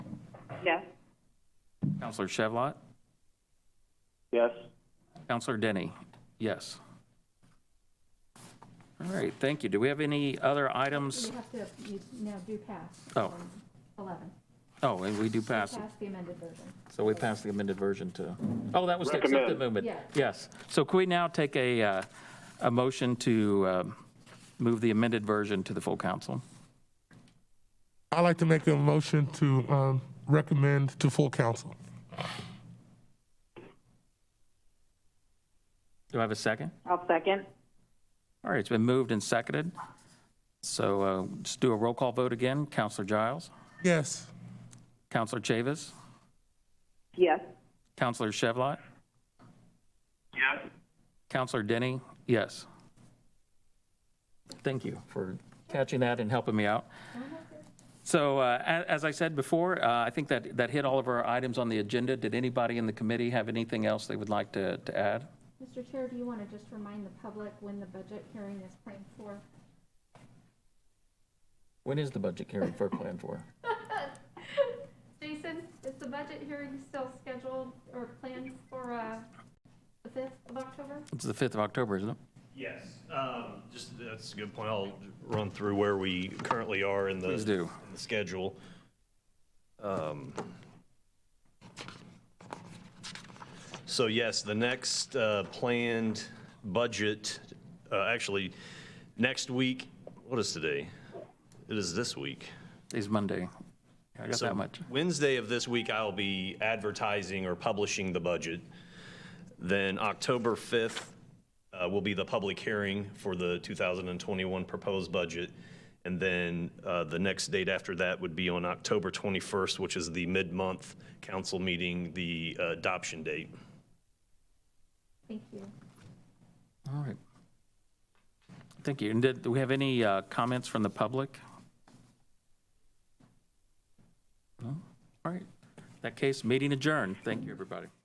Yes. Counselor Shavat? Yes. Counselor Denny? Yes. All right, thank you. Do we have any other items? You have to, you now do pass. Oh. um, 11. Oh, and we do pass. Pass the amended version. So we passed the amended version to, oh, that was the Recommend. accepted movement. Yeah. Yes. So can we now take a, uh, a motion to um, move the amended version to the full council? I'd like to make a motion to um, recommend to full council. Do I have a second? I'll second. All right, it's been moved and seconded. So uh, just do a roll call vote again. Counselor Giles? Yes. Counselor Chavis? Yes. Counselor Shavat? Yes. Counselor Denny, yes. Thank you for catching that and helping me out. So uh, a- as I said before, uh, I think that, that hit all of our items on the agenda. Did anybody in the committee have anything else they would like to, to add? Mr. Chair, do you want to just remind the public when the budget hearing is planned for? When is the budget hearing for Plan 4? Jason, is the budget hearing still scheduled or planned for uh, the 5th of October? It's the 5th of October, isn't it? Yes, um, just, that's a good point. I'll run through where we currently are in the. Please do. In the schedule. Um, So yes, the next uh, planned budget, uh, actually, next week, what is today? It is this week. It's Monday. I got So that much. Wednesday of this week, I'll be advertising or publishing the budget. Then October 5th uh, will be the public hearing for the 2021 proposed budget. And then uh, the next date after that would be on October 21st, which is the mid-month council meeting, the uh, adoption date. Thank you. All right. Thank you. And did, do we have any uh, comments from the public? No? All right. In that case, meeting adjourned. Thank you, everybody.